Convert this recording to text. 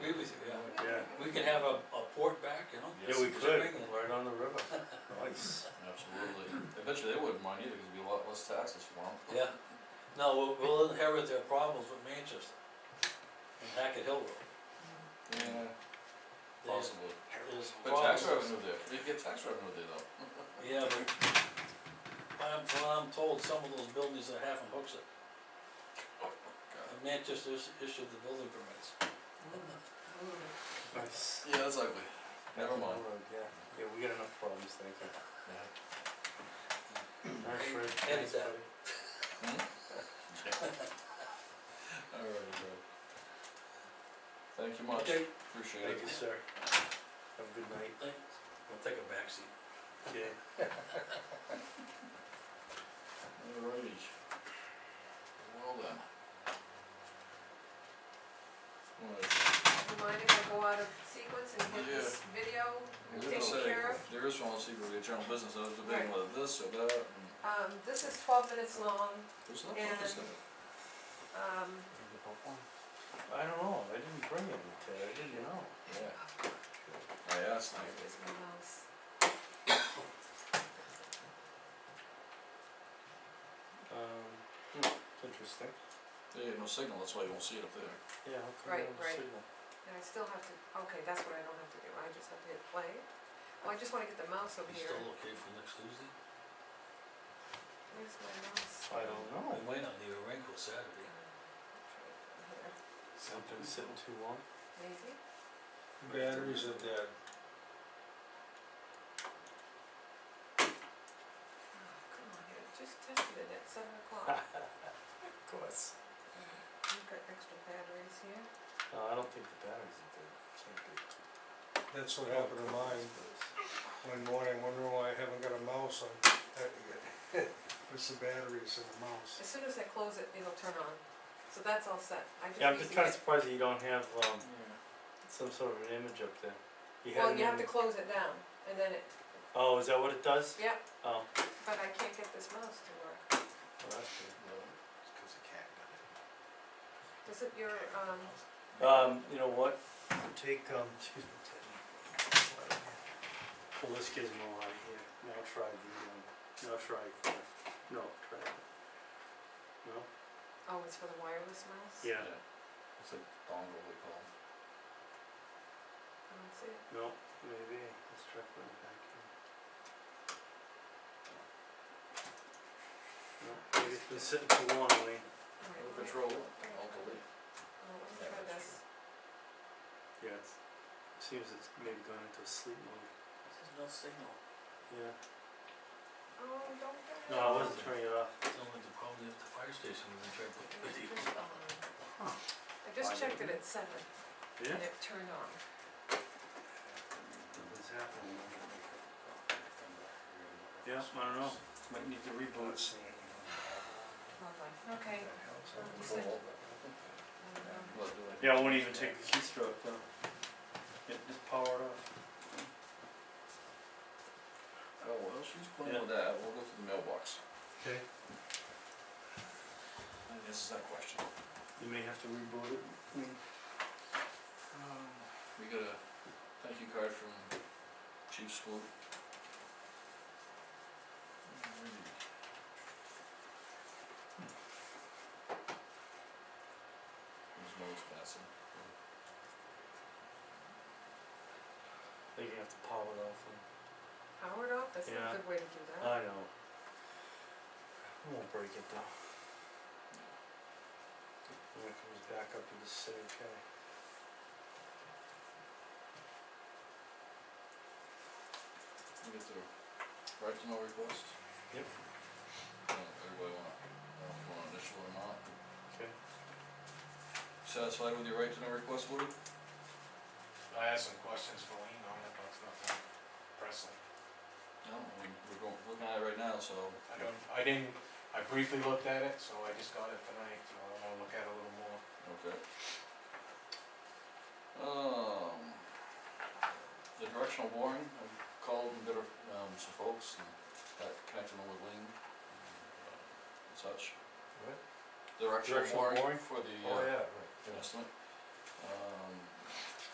we could have a, a port back, you know? Yeah, we Shipping could, and- right on the river, nice. Absolutely, I bet you they wouldn't mind either, because it'd be a lot less taxes for them. Yeah, no, we'll, we'll inherit their problems with Manchester and Hackett Hill Road. Yeah, There's- possibly, there's but tax problems. revenue there, they get tax revenue there though. Yeah, but I'm, from what I'm told, some of those buildings are half in Hooksett, God. and Manchester is- issued the building permits. Nice. Yeah, that's ugly, Never mind. Yeah, yeah, we got enough problems, thank you. yeah. Alright, Fred, Edit thanks, that. buddy. Alright, bro. Thank you much, Okay, appreciate it. Thank you, sir. Have a good night. thanks. We'll take a backseat. Yeah. Alrighty. Well then. Alright, Remind him to go out of sequence and get this video I was gonna taken say, care of. there is one secret with general business, I was debating Right. whether this or that, and Um, this is twelve minutes long, there's nothing to And- say. um, I don't know, I didn't bring it today, I didn't know. Yeah. I asked, where like, is my mouse? Um, it's interesting. there ain't no signal, that's why you won't see it up there. Yeah, how come Right, no right. signal? And I still have to, okay, that's what I don't have to do, I just have to hit play. Well, I just wanna get the mouse over You here, still okay for next Tuesday? where's my mouse? I don't know, We might not need a rain till Saturday. Here, something's sitting too long. Maybe, Batteries are dead. oh, come on, I just tested it at seven o'clock, Of course. I've got extra batteries here. No, I don't think the batteries are dead, can't be. That's what happened to mine one morning, wondering why I haven't got a mouse on. that yet. It's the batteries in the mouse. As soon as I close it, it'll turn on, so that's all set, I just Yeah, I'm need just to kinda get- surprised that you don't have, um, Yeah. some sort of an image up there. You had Well, an you have to image- close it down, and then it, Oh, is that what it does? yep, Oh, well, But I can't get this mouse to work. that's good. Does it, your, um, Um, you know what, take, um, excuse me, Teddy. Pull this gizmo out of here, now try the, um, now try, the- no, try it. No? oh, it's for the wireless mouse? Yeah, It's a dongle we call it. I don't see it. no, maybe, let's try putting it back in. No, maybe it's been sitting too long, Lee. All right, Well, let me- Control, wait, I'll delete. Oh, let me Yeah, try that's this. Yeah, it's, seems it's maybe gone into sleep mode. There's no signal. Yeah. Oh, don't do it. No, I wasn't turning it off. It's only the problem at the fire station, we're gonna try to put It the was video. turned on. um, I just checked it at seven, Yeah? and it turned on. What's happening? Yeah, I don't know, might need to reboot. Lovely. Okay. I'll just like- um, What do I do? Yeah, I won't even take the keystroke though. Yeah, just power it off. Oh, well, she's playing Yeah. with that, we'll go to the mailbox. Okay. And This is that question. You may have to reboot it. Um, We got a thank you card from Chief Hmm. Swoop. Alrighty. His nose passing. I think you have to power it off. Power it off, that's Yeah. not a good way to do that. I know. I won't break it though. When it comes back up, you just say, okay. We get the right to know request. Yep. Uh, Everybody wanna, wanna initial or not? Okay. Satisfied with your right to know request, Woody? I have some questions for Lean on it, but it's nothing pressing. No, I mean, we're going, looking at it right now, so. I don't, I didn't, I briefly looked at it, so I just got it tonight, so I wanna look at it a little more. Okay. Um, the directional boring, I called and got a, um, some folks and got connected them with Ling and such. What? Directional Directional boring boring? for the, Oh, uh, yeah, right. estimate. Um,